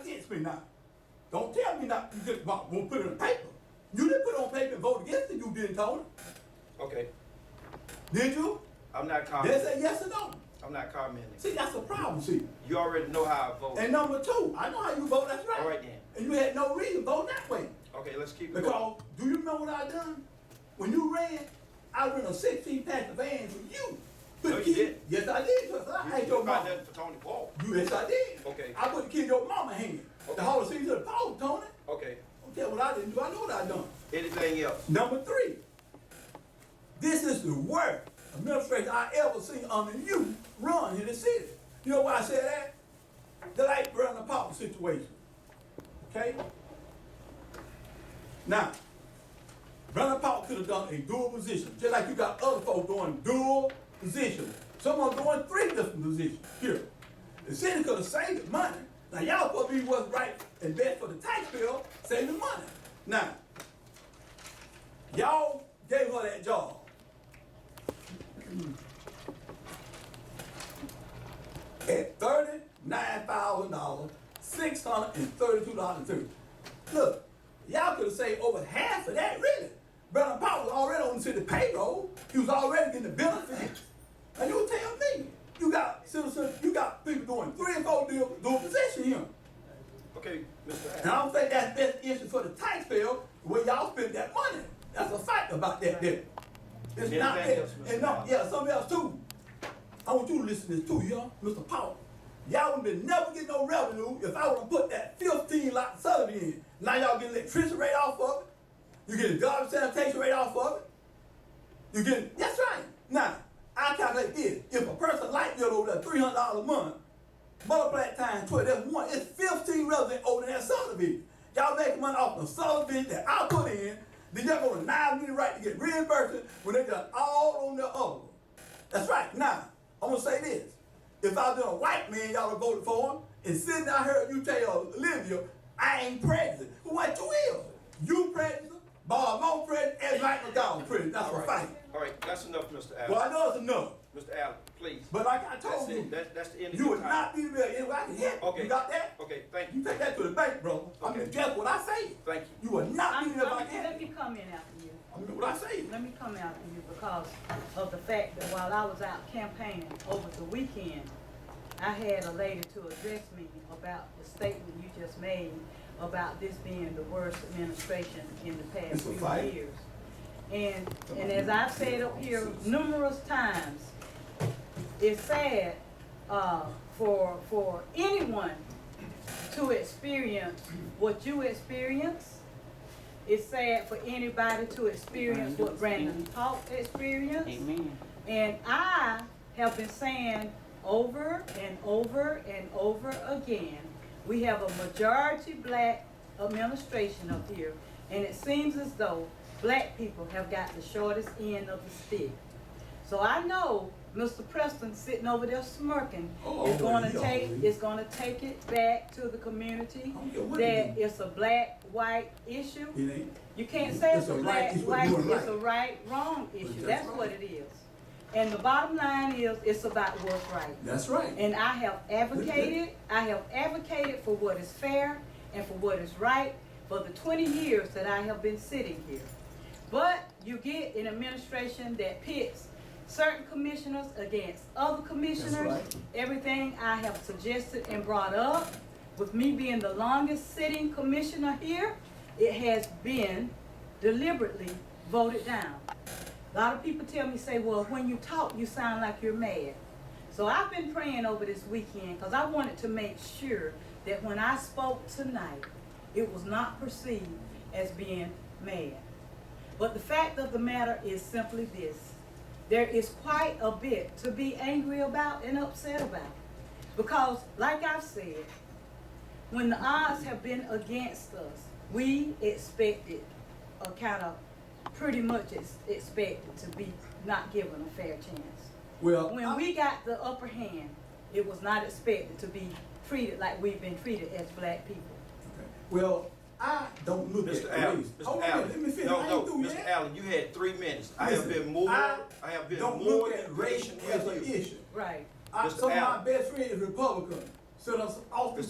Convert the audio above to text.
against me now. Don't tell me not, you just won't won't put it on paper. You didn't put it on paper and vote against it, you didn't, Tony. Okay, Did you? I'm not They commenting. say yes or no. I'm not commenting. See, that's a problem, see. You already know how I vote. And number two, I know how you vote, that's right. All right then. And you had no reason voting that way. Okay, let's keep it going. Because, do you know what I done? When you ran, I ran a sixteen pack of vans with you. No, you didn't. Yes, I did, because I You- had you your got mama. nothing for Tony Paul. You, yes, I did. Okay. I put the kid in your mama hand. Okay. The whole season of the power, Tony. Okay, Don't tell what I didn't do, I know what I done. anything else? Number three, this is the worst administration I ever seen under you run in the city. You know why I say that? The like brother Paul situation. Okay? Now, brother Paul could have done a dual position, just like you got other folks doing dual positions. Some are doing three different positions here. The city could have saved money. Now, y'all supposed to be what's right and best for the taxpayer, saving money. Now, Y'all gave her that job. At thirty-nine thousand dollars, six hundred and thirty-two dollars and thirty. Look, y'all could have saved over half of that, really. Brother Paul was already on the city payroll. He was already getting the benefits. Now you tell me, you got citizens, you got people doing three and four deal, doing position here. Okay, Mr. And Adams. I don't think that's best interest for the taxpayer where y'all spend that money. That's a fact about that there. It's Yeah, not that that. helps, Mr. And no, Powell. yeah, something else too. I want you to listen to this too, y'all, Mr. Powell. Y'all would have never get no revenue if I would have put that fifteen lot subsidy in. Now y'all get electricity rate off of it. You get a garbage sanitation rate off of it. You get that's right. Now I calculate this: if a person like bill over there three hundred dollars a month, multiply it times twelve, that's one. It's fifteen residents over that subdivision. Y'all making money off the subdivision that I put in. Then y'all gonna deny me the right to get reimbursed when they got all on their own. That's right. Now I'm gonna say this: if I been a white man, y'all have voted for him, and sitting out here, you tell Olivia, I ain't president. What you is? You president? Bob Mo president? And Mike McDonald president? That's All a right, fight. all right, that's enough, Mr. Well, Adams. I know it's enough, Mr. Allen, please. but like I That's told it, you, that's, that's the end of you your would not time. be the mayor anywhere I can hit. Okay. You got that? Okay, thank You you. take that to the bank, bro. I Okay. mean, guess what I say? Thank you. You would not be I'm, the mayor if I I'm, can let hit. me come in after you. I mean, what I say? Let me come after you because of the fact that while I was out campaigning over the weekend, I had a lady to address me about the statement you just made about this being the worst administration in the It's past a few fight. years. And, and as I've said up here numerous times, it's sad uh, for, for anyone to experience what you experience. It's sad for anybody to experience what Brandon Paul experienced. Amen. And I have been saying over and over and over again, we have a majority black administration up here, and it seems as though black people have got the shortest end of the stick. So I know Mr. Preston sitting over there smirking Oh, is gonna yeah. take, is gonna take it back to the community I don't care what it that is. it's a black, white issue. It ain't. You can't say it's It's a a right, black, it's what white, you're it's right. a right, wrong issue, that's that's right. what it is. And the bottom line is, it's about what's right. That's right. And I have advocated, I have advocated for what is fair and for what is right for the twenty years that I have been sitting here. But you get an administration that pits certain commissioners against other commissioners. right. Everything I have suggested and brought up, with me being the longest sitting commissioner here, it has been deliberately voted down. A lot of people tell me, say, well, when you talk, you sound like you're mad. So I've been praying over this weekend because I wanted to make sure that when I spoke tonight, it was not perceived as being mad. But the fact of the matter is simply this. There is quite a bit to be angry about and upset about. Because, like I've said, when the odds have been against us, we expected, or kind of pretty much ex- expected to be not given a fair chance. Well, When I- we got the upper hand, it was not expected to be treated like we've been treated as black people. well, I don't look Mr. at Allen, race. Mr. Hold on, a minute, let me Allen, finish. I no, ain't no, through Mr. yet. Allen, you had three minutes. I have Listen, been more, I I have been Don't more look than at race patient as an with you. issue. Right. I, Mr. some of my Allen. best friends is Republican. So that's off the